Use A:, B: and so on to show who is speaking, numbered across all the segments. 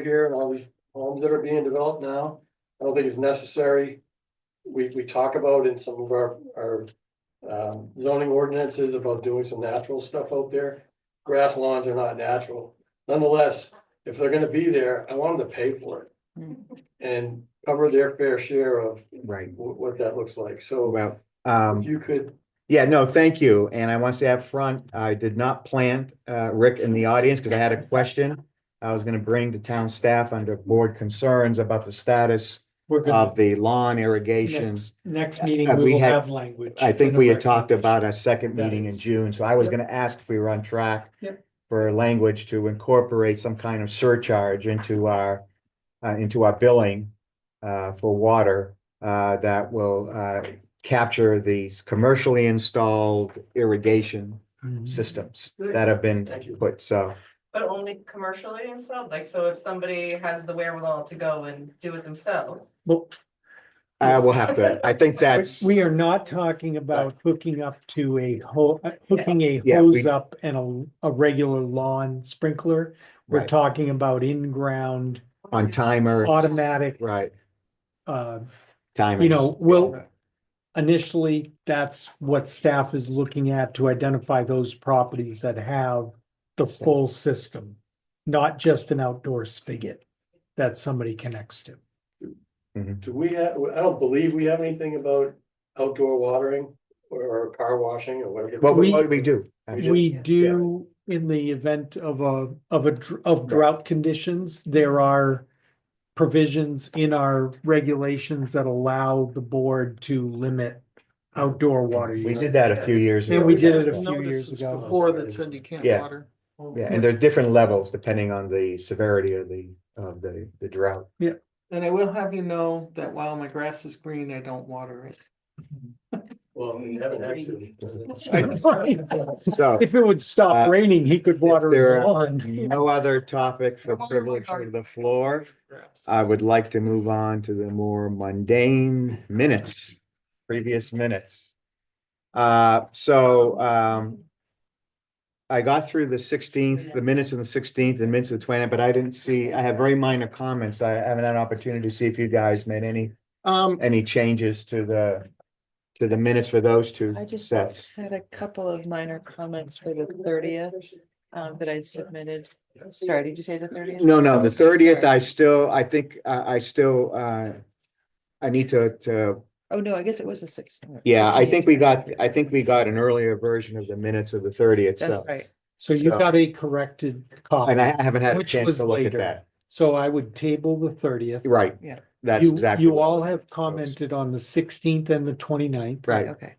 A: here and all these homes that are being developed now, I don't think it's necessary. We, we talk about in some of our, our um, zoning ordinances about doing some natural stuff out there. Grass lawns are not natural. Nonetheless, if they're gonna be there, I want them to pay for it. And cover their fair share of
B: Right,
A: wh- what that looks like. So
B: well, um,
A: you could,
B: yeah, no, thank you, and I want to say up front, I did not plant, uh, Rick in the audience, because I had a question. I was gonna bring to town staff under board concerns about the status
C: We're good.
B: of the lawn irrigation.
C: Next- Um, Next
B: Uh,
C: meeting,
B: we
C: we will
B: had-
C: have language.
B: I think we had talked
C: about.
B: about a second
C: That
B: meeting in
C: is-
B: June, so I was
C: Yep.
B: gonna ask if we were on track.
C: Yep.
B: For language to incorporate some kind of surcharge into our, uh, into our billing. Uh, for water, uh, that will, uh, capture these commercially installed irrigation systems that have been
A: Thank you.
B: put, so.
D: But only commercially installed, like, so if somebody has the wherewithal to go and do it themselves.
C: Well,
B: I will uh, have to, I think that's,
C: we are not talking about hooking up to a ho, uh, hooking a
B: Yeah, we-
C: hose up and a, a regular lawn sprinkler. We're
B: Right.
C: talking about in-ground
B: on timer,
C: automatic,
B: right,
C: uh,
B: timer.
C: you know, will. Initially, that's what staff is looking at to identify those properties that have the full system. Not just an outdoor spigot that somebody connects to.
A: do we have, I don't believe we have anything about outdoor watering or- or car washing or whatever.
B: What, we-
C: we-
B: what do we do?
A: We
C: We
D: Yeah.
C: do, in the event of a, of a, dr- of drought conditions, there are provisions in our regulations that allow the board to limit outdoor water
B: We
C: use.
B: did that a few years ago.
C: And we did
A: Yeah.
C: it a few
E: Notices
C: years ago.
E: Before that said you can't
B: Yeah.
E: water.
B: Yeah, and there's different levels depending on the severity of the, of the, the drought.
E: And I will have you know that while my grass is green, I don't water it.
A: Well, we haven't had to.
B: So,
C: If it would stop
B: Uh,
C: raining, he could water
B: there
C: his
B: are-
C: lawn.
B: no other topic for
E: I water my
B: privilege of
E: garden.
B: the floor.
E: Grass.
B: I would like to move on to the more mundane minutes, previous minutes. Uh, so, um, I got through the sixteenth, the minutes of the sixteenth and minutes of the twentieth, but I didn't see, I have very minor comments. I haven't had an opportunity to see if you guys made any,
E: Um,
B: any changes to the, to the minutes for those two
F: I just
B: sets.
F: had a couple of minor comments for the thirtieth, um, that I submitted. Sorry, did you say the thirtieth?
B: No, no, the thirtieth, I still, I think, I, I still, uh, I need to, to
F: Oh, no, I guess it was the sixteenth.
B: Yeah, I think we got, I think we got an earlier version of the minutes of the thirtieth,
F: That's
B: so,
F: right.
C: So you
B: So-
C: got a corrected
B: and I
C: copy.
B: haven't had a
C: Which
B: chance
C: was
B: to look at
C: later.
B: that.
C: So I would table the thirtieth.
B: Right.
F: Yeah.
B: That's
C: You,
B: exactly.
C: you
B: what-
C: all have commented on the sixteenth and the 29th.
B: Right,
F: Okay,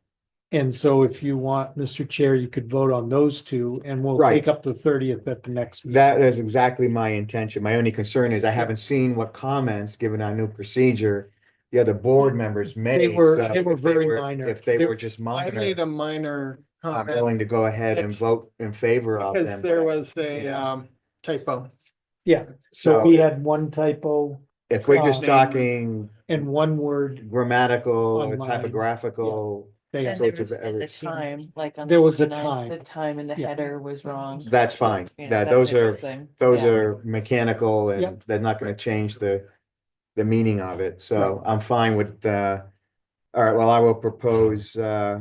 C: And so if you want, Mr. Chair, you could vote on those two and we'll
B: Right.
C: take up the thirtieth at the next. meeting.
B: that is exactly my intention. My only concern is I haven't seen what comments, given our new procedure, the other board members made.
C: were-
B: so
C: they were
B: if
C: very minor.
B: If they
C: They-
B: were just
E: I made
B: minor,
E: a minor
B: I'm
E: comment
B: willing to go ahead and
E: It's-
B: vote in favor of
E: because
B: them.
E: there was a
B: Yeah.
E: um typo.
C: Yeah, so
B: So-
C: we had one typo
B: If we're just
C: um,
B: talking
C: and one word.
B: grammatical,
C: Online, yeah.
B: typographical,
C: they-
F: and
B: so
F: there
B: it's
F: was
B: a-
F: and the
B: everything.
F: time, like. on
C: There was a
F: 29th,
C: time.
F: The time in the
C: Yeah.
F: header was wrong.
B: that's fine.
F: You know,
B: That,
F: that
B: those
F: type of
B: are,
F: thing.
B: those
F: Yeah.
B: are mechanical and
C: Yep.
B: they're not gonna change the, the meaning of it, so I'm fine with, uh, all right, well, I will propose, uh,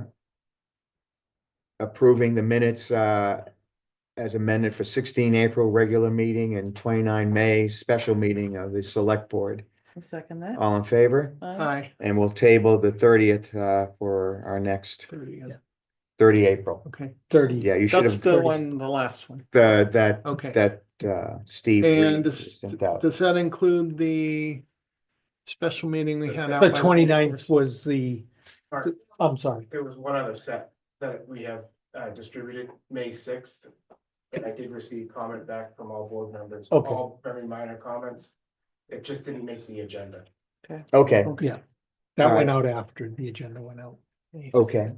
B: approving the minutes, uh, as amended for sixteen April regular meeting and twenty-nine May special meeting of the select board.
F: I'll Second that.
B: All in favor?
F: Aye.
E: Hi.
B: And we'll table the thirtieth, uh, for our next
E: Okay.
B: thirty April.
C: Thirty.
B: Yeah, you should
E: That's
B: have,
E: the
B: the,
E: one, the last one.
B: that,
E: Okay.
B: that, uh, Steve.
E: And
B: Reed
E: does,
B: sent out.
E: does that include the special meeting we had? out
C: The
E: by-
C: 29th was the,
G: Mark,
C: I'm sorry,
G: there was one other set that we have uh, distributed May sixth. And I did receive comment back from all board members,
C: Okay.
G: all very minor comments. It just didn't make the agenda.
B: Okay,
C: yeah. That
B: All
C: went out after the agenda went out.
B: Okay.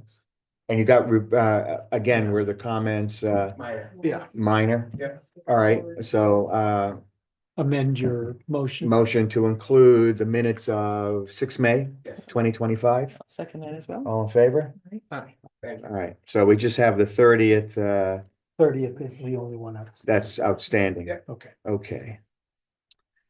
B: and you got, re- uh, again, were the comments, uh,
G: Minor.
E: Yeah.
B: minor?
G: Yeah.
B: All right, so, uh,
C: Amend your motion.
B: motion to include the minutes of six May,
G: yes,
B: twenty twenty-five,
F: I'll Second that as well.
B: all in favor?
E: Hi.
G: thank you.
B: All right, so we just have the thirtieth, uh,
C: Thirtieth is the only one. out.
B: that's outstanding.
G: Yeah.
C: Okay.
B: Okay,